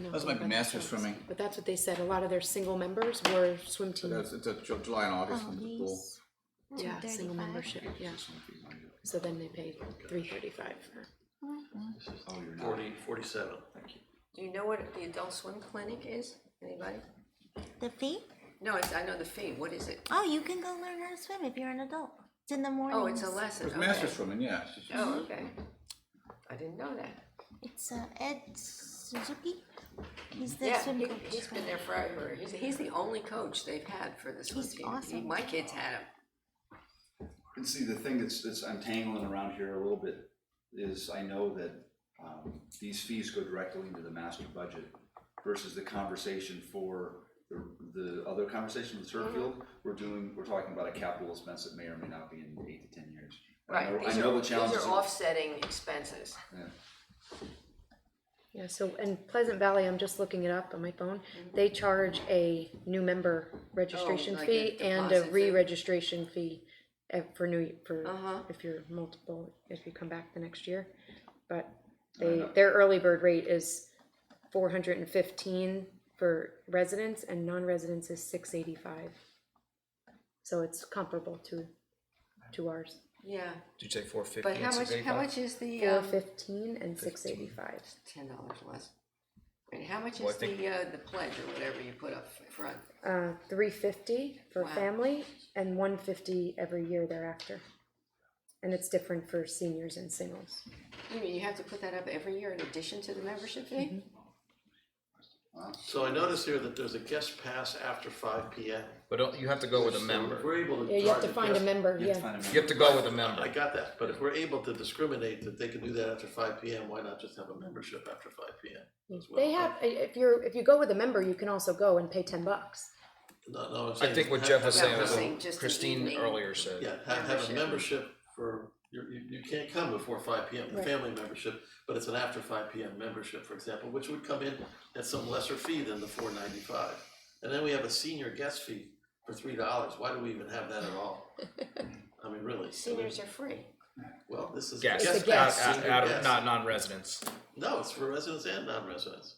know. Those might be master swimming. But that's what they said, a lot of their single members were swim So team, that's, it's a Ju- July and August Oh, one's a pool. these. yeah, single 235. membership, yeah, so then they paid three thirty-five for. Um, Forty, forty-seven. Do you know what the adult swim clinic is? Anybody? The fee? No, it's, I know the fee. What is it? Oh, you can go learn how to swim if you're an adult. It's in the morning. Oh, it's a lesson. There's Okay. master swimming, yeah. it's just- Oh, okay. I didn't know that. It's uh, Ed Suzuki. He's the Yeah, swim he, coach. he's been there forever. He's, he's the only coach they've had for this swim He's team. He- awesome. My kids had him. And see, the thing that's, that's untangling around here a little bit is I know that, um, these fees go directly into the master budget versus the conversation for the, the other conversation with turf field, we're doing, we're talking about a capital expense that may or may not be in eight to ten years. And I know- Right. I These know are, the these challenges are of- offsetting expenses. yeah. Yeah, so in Pleasant Valley, I'm just looking it up on my phone, they charge a new member registration like a fee and deposit a thing. re-registration fee eh, for new, for, Uh-huh. if you're multiple, if you come back the next year. But they, their early bird rate is four hundred and fifteen for residents and non-residents is six eighty-five. So it's comparable to, to ours, Yeah. Did you say four fifty But and how six much, how eighty-five? much is the, four um, fifteen and six eighty-five. ten dollars less? And how much Oh, Well, I is think- the, uh, the pledge or whatever you put up front? uh, three fifty for Wow. family and one fifty every year thereafter. And it's different for seniors and singles. You mean you have to put that up every year in addition to the membership Mm-hmm. fee? So I notice here that there's a guest pass after five P M. But don't- you have to go with a So If member. we're able to. Yeah, you have to target find a guest- member, You have to yeah. find a You have to go with a I member. got that, but if we're able to discriminate that they can do that after five P M, why not just have a membership after five P M? They have, i- if you're, if you go with a member, you can also go and pay ten bucks. No, no, I'm saying. I think what have- Jeff was have- saying was have- saying just what the Christine evening. earlier said. Yeah, have, have a Membership. membership for, you, you, you can't come before five P M, the Right. family membership, but it's an after five P M membership, for example, which would come in at some lesser fee than the four ninety-five. And then we have a senior guest fee for three dollars, why do we even have that at all? I mean, really, I mean, Seniors are free. well, this is. It's Guests, a guest. out, out- Senior out of, guest. not non-residents. No, it's for residents and non-residents,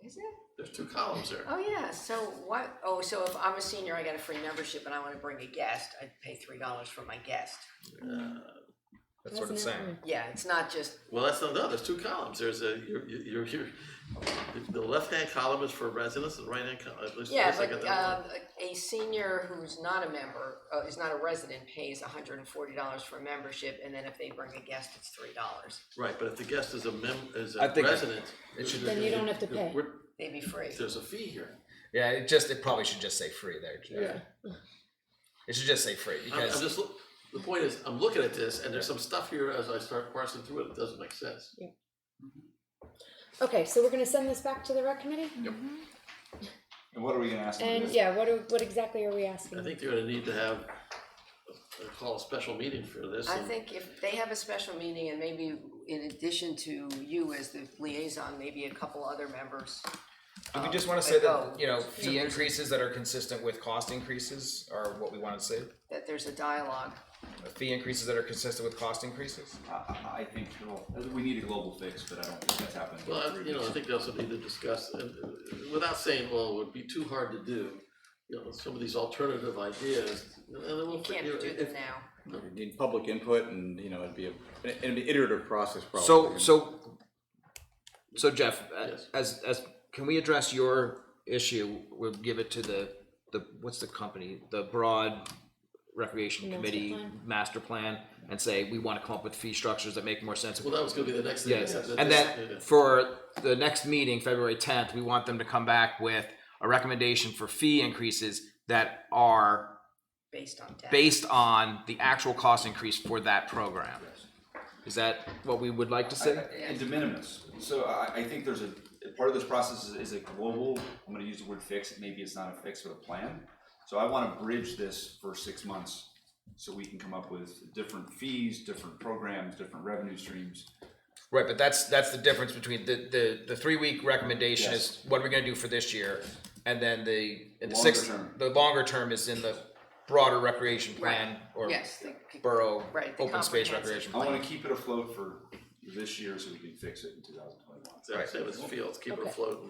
Is it? there's two columns there. Oh, yeah, so what, oh, so if I'm a senior, I got a free membership and I wanna bring a guest, I'd pay three dollars for my guest. That's what it's Wasn't it? saying. Yeah, it's not just, Well, that's not, no, there's two columns, there's a, you're, you're, you're, the left-hand column is for residents, and the right-hand column, at least, yeah, at least I but, got that one. um, a a senior who's not a member, uh, is not a resident, pays hundred and forty dollars for a membership, and then if they bring a guest, it's three dollars. Right, but if the guest is a mem, is I a think it- resident. it should- Then you don't have to pay. we're- They'd be free. There's a fee here. Yeah, it just, it probably should just say free there. Jeff. Yeah. It should just say free I'm, I'm because, just, loo- the point is, I'm looking at this and there's some stuff here as I start parsing through it, it doesn't make sense. Okay, so we're gonna send this back to the rec committee? And what are we gonna ask them to And do? yeah, what, are- what exactly are we I asking? think they're gonna need to have, uh, call a special meeting for this. I and- think if they have a special meeting and maybe in addition to you as the liaison, maybe a couple other members. do we just wanna um, say go. that, you know, fee increases that are consistent with cost increases are what we wanna say? That there's a dialogue. Fee increases that are consistent with cost increases? I, I, I think, well, we need a global fix, but I don't think that's happening. in Well, I- three you know, I weeks. think they also need to discuss, and uh, without saying, well, it would be too hard to do, you know, some of these alternative ideas. and then we'll You can't figure- do if- them now. You Need public input and, you know, it'd be a, it'd be an iterative process probably. So, so, so Jeff, a- Yes. as, as, can we address your issue? We'll give it to the, the, what's the company? The Broad Recreation Master Committee plan. Master Plan and say, we want to come up with fee structures that make more sense. Well, that was gonna be the next thing. Yes, yeah, that and this- then yeah. for the next meeting, February tenth, we want them to come back with a recommendation for fee increases that are based on data. based on the actual cost increase for that program. Is that what we would like to I- I- say? And de minimis. So I, I think there's a, part of this process is, is a global, I'm gonna use the word fix, maybe it's not a fix, but a plan. So I wanna bridge this for six months, so we can come up with different fees, different programs, different revenue streams. Right, but that's, that's the difference between the, the, the three-week recommendation is what are we gonna do for this year? And then the, and the Longer six, term. the longer term is in the broader recreation plan or Yes, the- borough, Right, the open space comprehensive recreation I plan. wanna keep it afloat for this year, so we can fix it in two thousand twenty-one. Same as fields, keep it afloat.